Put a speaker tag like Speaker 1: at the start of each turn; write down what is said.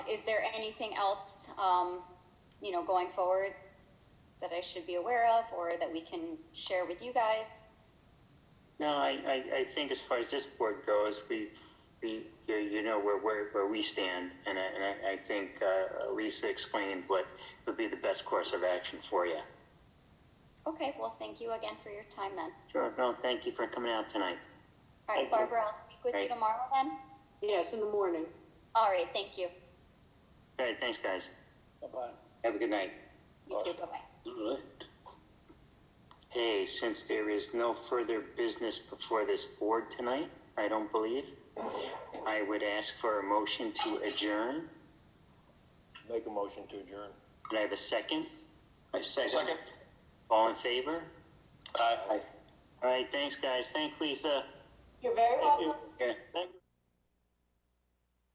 Speaker 1: is there anything else, um, you know, going forward that I should be aware of or that we can share with you guys?
Speaker 2: No, I, I, I think as far as this board goes, we, we, you, you know where, where, where we stand. And I, and I, I think, uh, Lisa explained what would be the best course of action for you.
Speaker 1: Okay, well, thank you again for your time then.
Speaker 2: Sure, no, thank you for coming out tonight.
Speaker 1: All
Speaker 2: Thank
Speaker 1: right,
Speaker 2: you.
Speaker 1: Barbara, I'll speak with you
Speaker 2: Great.
Speaker 1: tomorrow then.
Speaker 3: Yes, in the morning.
Speaker 1: All right, thank you.
Speaker 2: All right, thanks, guys.
Speaker 3: Bye-bye.
Speaker 2: Have a good night.
Speaker 1: You too, bye-bye.
Speaker 2: Hey, since there is no further business before this board tonight, I don't believe, I would ask for a motion to adjourn.
Speaker 4: Make a motion to adjourn.
Speaker 2: Could I have a second?
Speaker 5: I second.
Speaker 2: All in favor?
Speaker 5: Aye.
Speaker 2: All right, thanks, guys. Thanks, Lisa.
Speaker 3: You're very welcome.
Speaker 2: Yeah, thank you.